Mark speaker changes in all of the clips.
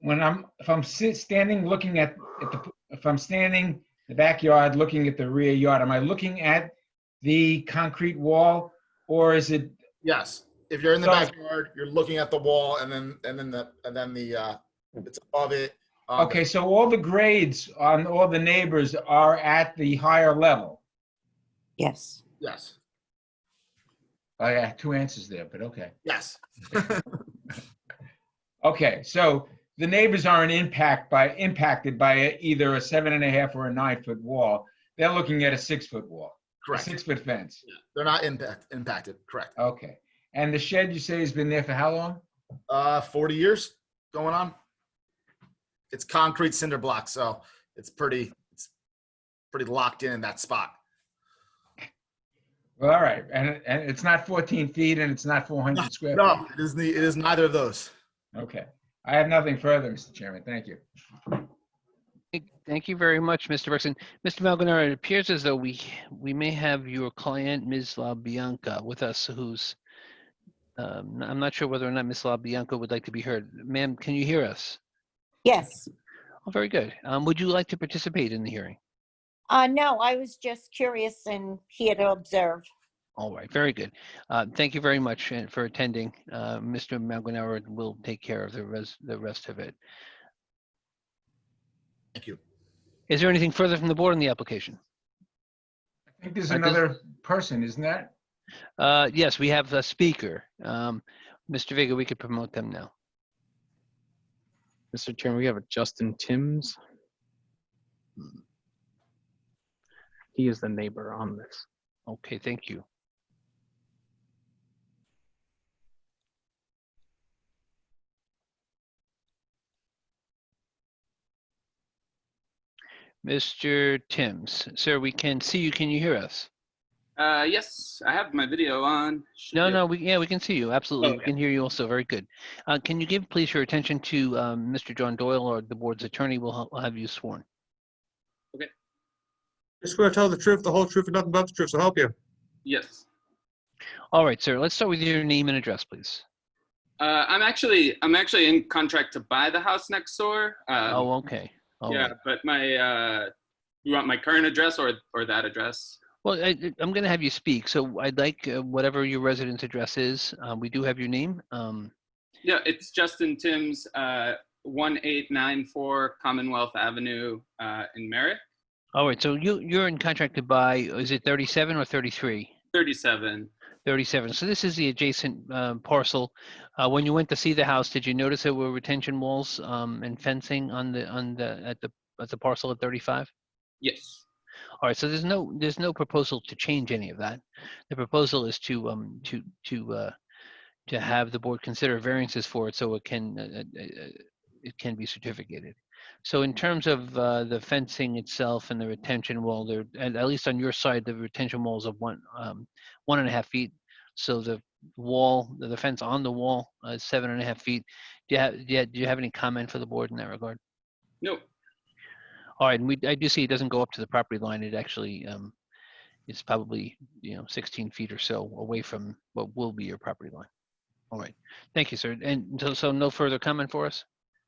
Speaker 1: when I'm, if I'm sit- standing, looking at, at the, if I'm standing in the backyard, looking at the rear yard, am I looking at the concrete wall? Or is it,
Speaker 2: Yes, if you're in the
Speaker 1: So-
Speaker 2: backyard, you're looking at the wall, and then and then the and then the uh, it's above it. Um,
Speaker 1: okay, so all the grades on all the neighbors are at the higher level?
Speaker 3: Yes.
Speaker 2: Yes.
Speaker 1: I have two answers there, but okay.
Speaker 2: Yes.
Speaker 1: Okay, so the neighbors aren't impact by, impacted by a- either a seven and a half or a nine-foot wall. They're looking at a six-foot wall, a
Speaker 2: Correct.
Speaker 1: six-foot fence.
Speaker 2: They're not impact impacted. Correct.
Speaker 1: Okay. And the shed you say has been there for how long?
Speaker 2: Uh, 40 years going on. It's concrete cinder block, so it's pretty it's pretty locked in in that spot.
Speaker 1: Well, all right. And, and it's not 14 feet and it's not 400 square. feet.
Speaker 2: No, it is the it is neither of those.
Speaker 1: Okay. I have nothing further, Mr. Chairman. Thank you.
Speaker 4: Thank you very much, Mr. Bergson. Mr. Malgunar, it appears as though we, we may have your client, Ms. LaBianca, with us, who's, um, I'm not sure whether or not Ms. LaBianca would like to be heard. Ma'am, can you hear us?
Speaker 3: Yes.
Speaker 4: Oh, very good. Um, Would you like to participate in the hearing?
Speaker 3: Uh, no, I was just curious and here to observe.
Speaker 4: All right, very good. Uh, Thank you very much uh, for attending. Uh, Mr. Malgunar will take care of the res- the rest of it.
Speaker 2: Thank you.
Speaker 4: Is there anything further from the board on the application?
Speaker 1: I think there's
Speaker 4: I just-
Speaker 1: another person, isn't that?
Speaker 4: Uh, Yes, we have a speaker. Um, Mr. Vega, we could promote them now.
Speaker 5: Mr. Chairman, we have a Justin Timms. He is the neighbor on this.
Speaker 4: Okay, thank you. Mr. Timms, sir, we can see you. Can you hear us?
Speaker 6: Uh, yes, I have my video on. Should
Speaker 4: No,
Speaker 6: be
Speaker 4: no, we, yeah, we can see you. Absolutely. We
Speaker 6: Okay.
Speaker 4: can hear you also. Very good. Uh, can you give, please, your attention to, um, Mr. John Doyle or the board's attorney will ha- will have you sworn.
Speaker 7: Just gonna tell the truth, the whole truth, and nothing but the truth, so help you.
Speaker 6: Yes.
Speaker 4: All right, sir, let's start with your name and address, please.
Speaker 6: Uh, I'm actually I'm actually in contract to buy the house next door. Um,
Speaker 4: Oh, okay. All
Speaker 6: yeah,
Speaker 4: right.
Speaker 6: but my uh, you want my current address or or that address?
Speaker 4: Well, I, I- I'm going to have you speak, so I'd like uh, whatever your residence address is. Uh, we do have your name. Um,
Speaker 6: Yeah, it's Justin Timms, uh, one eight nine four Commonwealth Avenue uh, in Merritt,
Speaker 4: all right, so you you're in contract to buy. Is it 37 or 33?
Speaker 6: thirty seven.
Speaker 4: 37. So this is the adjacent um, parcel. Uh, when you went to see the house, did you notice there were retention walls um, and fencing on the on the at the at the parcel at 35?
Speaker 6: Yes.
Speaker 4: All right, so there's no, there's no proposal to change any of that. The proposal is to, um, to, to, uh, to have the board consider variances for it so it can, uh, uh, uh, it can be certificated. So in terms of, uh, the fencing itself and the retention wall, there, at, at least on your side, the retention wall is of one, um, one and a half feet. So the wall, the the fence on the wall uh, is seven and a half feet. Do you have, do you- do you have any comment for the board in that regard?
Speaker 6: No.
Speaker 4: All right, and we, I do see it doesn't go up to the property line, it actually, um, it's probably, you know, sixteen feet or so away from what will be your property line. All right, thank you, sir, and so, so no further comment for us?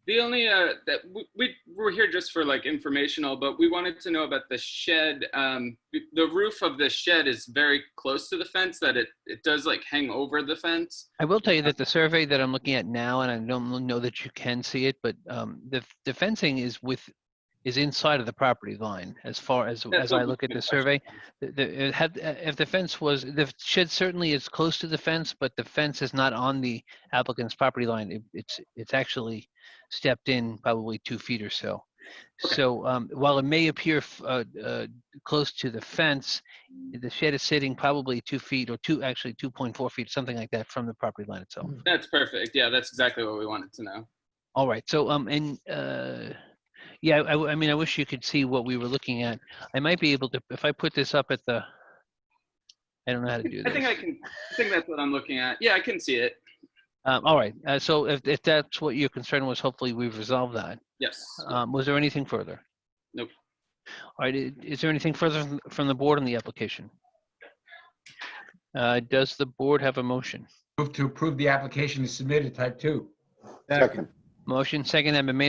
Speaker 6: The only uh, that we, we were here just for like informational, but we wanted to know about the shed. Um, the roof of the shed is very close to the fence; that it it does like hang over the fence.
Speaker 4: I will tell you that the survey that I'm looking at now, and I don't know that you can see it, but, um, the, the fencing is with, is inside of the property line, as far as,
Speaker 6: That's
Speaker 4: as
Speaker 6: what
Speaker 4: I
Speaker 6: we
Speaker 4: look at
Speaker 6: can
Speaker 4: the
Speaker 6: touch
Speaker 4: survey.
Speaker 6: on.
Speaker 4: The- the- it had- uh, If the fence was, the shed certainly is close to the fence, but the fence is not on the applicant's property line. It- It's, it's actually stepped in probably two feet or so.
Speaker 6: Okay.
Speaker 4: So um, while it may appear f- uh, uh, close to the fence, the shed is sitting probably two feet or two, actually 2.4 feet, something like that from the property line itself.
Speaker 6: That's perfect. Yeah, that's exactly what we wanted to know.
Speaker 4: All right, so, um, and, uh, yeah, I, w- I mean, I wish you could see what we were looking at. I might be able to, if I put this up at the, I don't know how to do this.
Speaker 6: I think I can. I think that's what I'm looking at. Yeah, I can see it.
Speaker 4: Um, all right, uh, so if, if that's what your concern was, hopefully we've resolved that.
Speaker 6: Yes.
Speaker 4: Um, was there anything further?
Speaker 6: Nope.
Speaker 4: All right, i- is there anything further from- from the board on the application? Uh, does the board have a motion?
Speaker 1: Move to approve the application is submitted, type two.
Speaker 8: Second.
Speaker 4: Motion second, amendment made